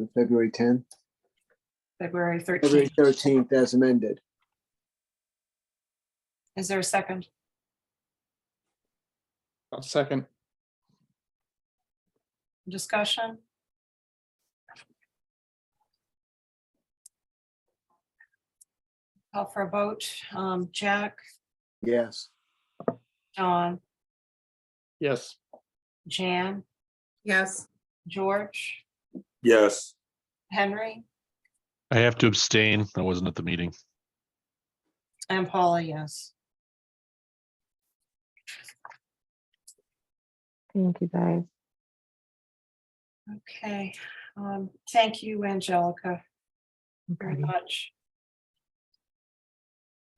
the February 10th, February February 13th. 13th as amended. Is there a second? I'll second. Discussion? Call for a vote. Um, Jack, Yes. Don, Yes, Jan, Yes, George, Yes, Henry, I have to abstain. I wasn't at the meeting. and Paula, yes. Thank you, guys. Okay, um, thank you, Angelica, very Okay. much.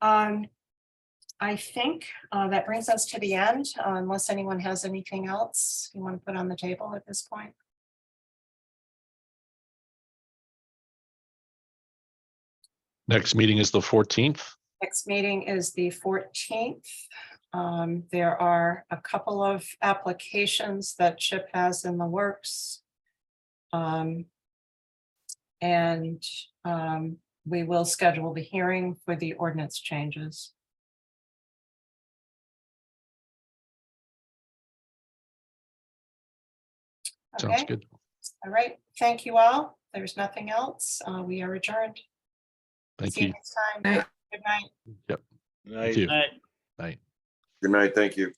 Um, I think uh, that brings us to the end, uh, unless anyone has anything else you want to put on the table at this point. Next meeting is the fourteenth. Next meeting is the fourteenth. Um, there are a couple of applications that Chip has in the works. Um. And, um, we will schedule the hearing for the ordinance changes. Sounds Okay, good. all right. Thank you all. There's nothing else. Uh, we are adjourned. Thank See you you. next time. Night. Good night. Thank you. good Bye. night, thank you.